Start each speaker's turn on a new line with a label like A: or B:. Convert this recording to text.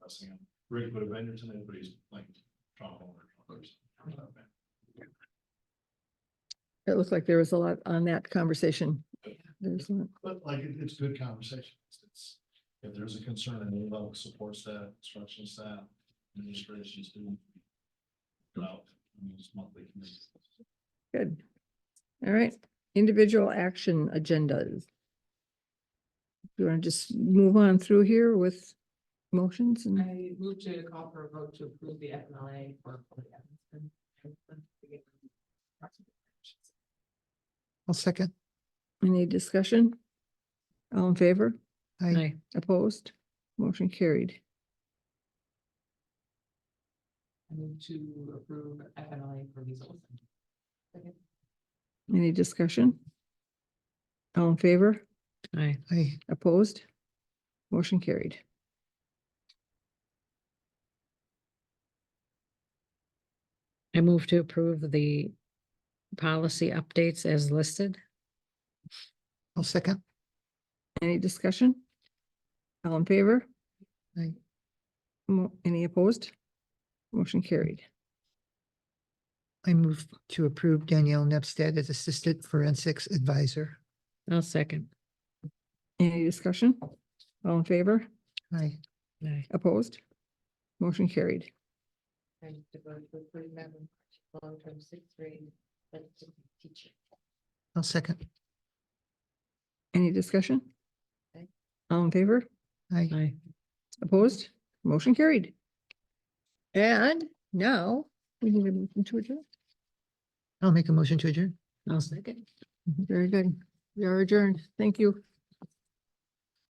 A: discussing it. Rick would have entered something, but he's like John Holder.
B: It looked like there was a lot on that conversation. There's, a lot.
A: But like, it- it's good conversation. It's- It's, if there's a concern and any level support staff, instruction staff, administration, student. About, I mean, it's monthly committees.
B: good. All right, individual action agendas. You want to just move on through here with motions and,
C: I move to call for a vote to approve the FMLA for. Chloe Evanston.
D: I'll second.
B: any discussion? All in favor?
D: I,
B: Opposed? Motion carried.
C: I move to approve FMLA for Lisa Olson. Second.
B: Any discussion? All in favor?
D: I,
B: Opposed? Motion carried.
E: I move to approve the policy updates as listed.
D: I'll second.
B: Any discussion? All in favor?
D: Aye.
B: Mo- Any opposed? Motion carried.
D: I move to approve Danielle Nepstead as Assistant Forensics Advisor.
E: I'll second.
B: Any discussion? All in favor?
D: I,
E: Aye.
B: Opposed? Motion carried.
C: I to vote to approve Madam long-term sixth grade teacher.
D: I'll second.
B: Any discussion?
C: Aye.
B: All in favor?
D: I,
E: Aye.
B: Opposed? Motion carried. And now we need a motion to adjourn.
D: I'll make a motion to adjourn.
E: I'll second.
B: Mm-hmm. Very good. We are adjourned. Thank you.